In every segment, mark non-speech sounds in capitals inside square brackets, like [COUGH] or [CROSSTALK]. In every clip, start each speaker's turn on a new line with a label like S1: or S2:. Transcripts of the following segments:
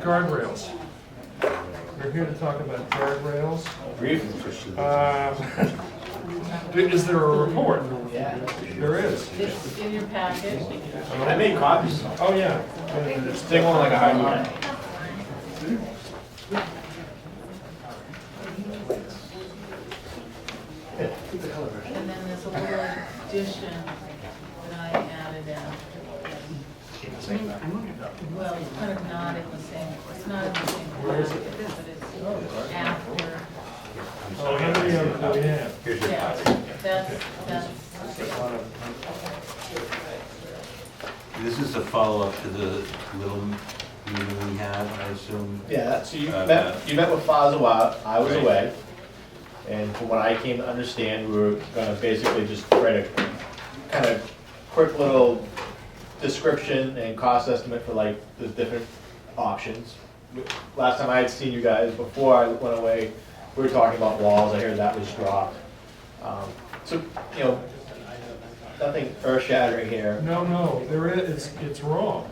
S1: guardrails. We're here to talk about guardrails.
S2: Grief.
S3: Uh,
S1: Um, [LAUGHS] Is there a report? There is.
S4: It's in your package.
S2: I made copies.
S1: Oh, yeah.
S2: Stick one like a high mark.
S4: And then there's a little addition that I added in. Well, it's kind of not in the same, it's not in the same package, but it's after.
S1: Oh, how many of them do we have?
S2: Here's your
S4: Yeah,
S2: copy.
S4: that's, that's.
S5: This is a follow-up to the little meeting we had, I assume.
S3: Yeah, so you
S5: Uh,
S3: met, you met with Fazwa, I was
S5: Right.
S3: away. And from what I came to understand, we were gonna basically just write a kind of quick little description and cost estimate for like the different options. Last time I had seen you guys, before I went away, we were talking about walls, I heard that was dropped. Um, So, you know, nothing earth shattering here.
S1: No, no, there is, it's, it's wrong.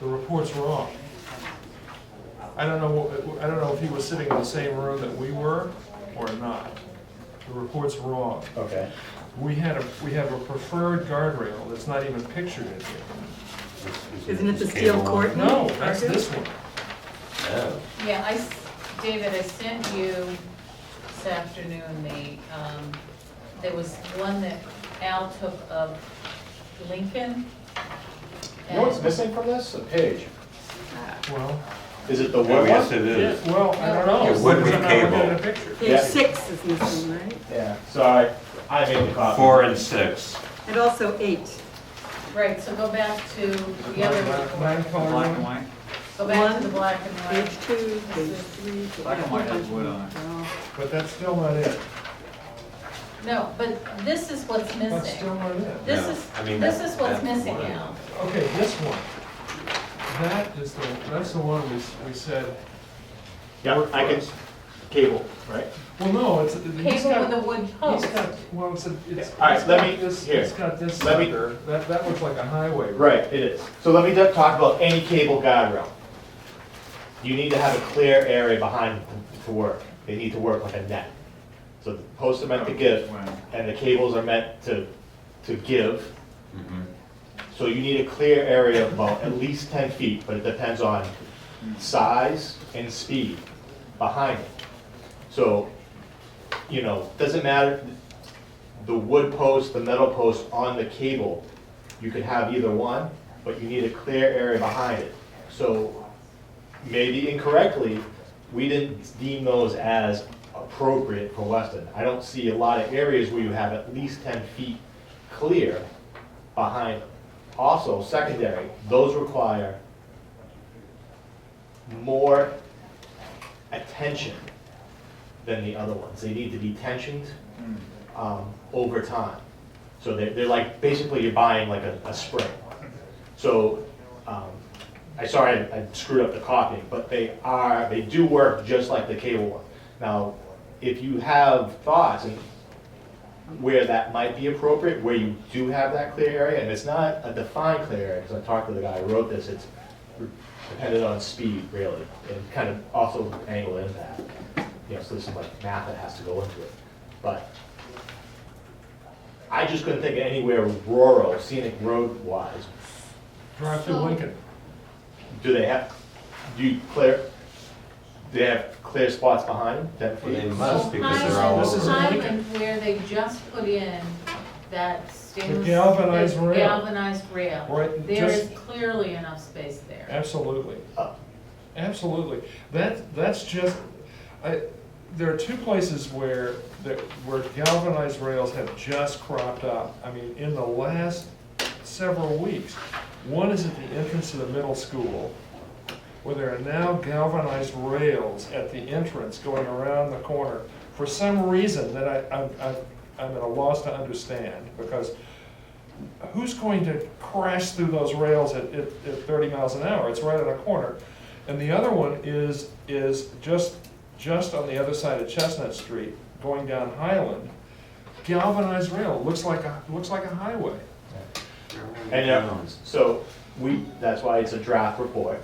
S1: The report's wrong. I don't know, what- I don't know if he was sitting in the same room that we were or not. The report's wrong.
S3: Okay,
S1: We had a, we have a preferred guardrail that's not even pictured in here.
S6: Isn't it the steel
S5: court?
S6: court?
S1: No, that's this one.
S5: Oh,
S4: Yeah, I, s- David, I sent you this afternoon the, um, there was one that Al took of Lincoln.
S3: you know what's
S4: And-
S3: missing from this? A page.
S1: Well,
S3: Is it the
S5: oh,
S3: wood
S5: yes,
S3: one?
S5: it
S1: yeah,
S5: is.
S1: well, I don't know.
S5: It would be
S1: because I'm not looking
S5: cable.
S1: at a picture.
S6: Page
S3: Yeah.
S6: six is missing, right?
S3: Yeah, sorry, I made the copy.
S5: Four and six.
S6: And also eight.
S4: Right, so go back to the other
S1: Mine-
S4: report,
S1: mine color one.
S7: white?
S4: go back to the black and
S6: Page
S4: white.
S6: two, page three. page-
S7: Black and white has wood on it.
S6: Well,
S1: But that's still not it.
S4: No, but this is what's
S1: That's still
S4: missing.
S1: not it.
S4: This
S5: No,
S4: is,
S5: I mean,
S4: this
S5: that-
S4: is what's
S5: that
S4: missing,
S5: one.
S4: Al.
S1: Okay, this one. That is the, that's the one we, s- we said,
S3: Yeah, I can, cable, right?
S1: well, no, it's. he's
S4: Cable
S1: got-
S4: with a wood
S1: He's
S4: post.
S1: got, well, it's, a- it's.
S3: All right,
S1: it's
S3: let
S1: got
S3: me-
S1: this-
S3: here.
S1: It's got this
S3: Let me-
S1: sucker, that, that looks like a highway.
S3: Right, it is. So let me just talk about any cable guide rail. You need to have a clear area behind to- to work. They need to work like a net. So the posts are meant to give, and the cables are meant to, to give. So you need a clear area of about at least ten feet, but it depends on size and speed behind it. So, you know, doesn't matter, the wood post, the metal post on the cable, you could have either one, but you need a clear area behind it. So maybe incorrectly, we didn't deem those as appropriate for Weston. I don't see a lot of areas where you have at least ten feet clear behind them. Also, secondary, those require more attention than the other ones. They need to be tensioned um, over time. So they're, they're like, basically you're buying like a, a spring. So, um, I, sorry, I I screwed up the copying, but they are, they do work just like the cable one. Now, if you have thoughts and where that might be appropriate, where you do have that clear area, and it's not a defined clear area, because I talked to the guy who wrote this, it's dependent on speed really, and kind of also angle impact. You know, so there's some like math that has to go into it. But I just couldn't think of anywhere rural, scenic road wise,
S1: Drive through Lincoln.
S3: do they have, do you clear, do they have clear spots behind them, ten
S5: Well, they
S3: feet?
S5: must because they're all
S1: This is
S4: So
S1: a
S5: over.
S4: Highland,
S1: Lincoln.
S4: Highland where they just put in that stainless.
S1: galvanized
S4: the
S1: rail.
S4: Galvanized rail.
S1: Right,
S4: There
S1: just-
S4: is clearly enough space there.
S1: Absolutely.
S3: Uh.
S1: Absolutely. That, that's just, I, there are two places where, that, where galvanized rails have just cropped up. I mean, in the last several weeks. One is at the entrance to the middle school, where there are now galvanized rails at the entrance going around the corner. For some reason that I, I'm, I'm- I'm at a loss to understand, because who's going to crash through those rails at, at, at thirty miles an hour? It's right on a corner. And the other one is, is just, just on the other side of Chestnut Street, going down Highland, galvanized rail, looks like a, looks like a highway.
S3: And, uh, so, we, that's why it's a draft report,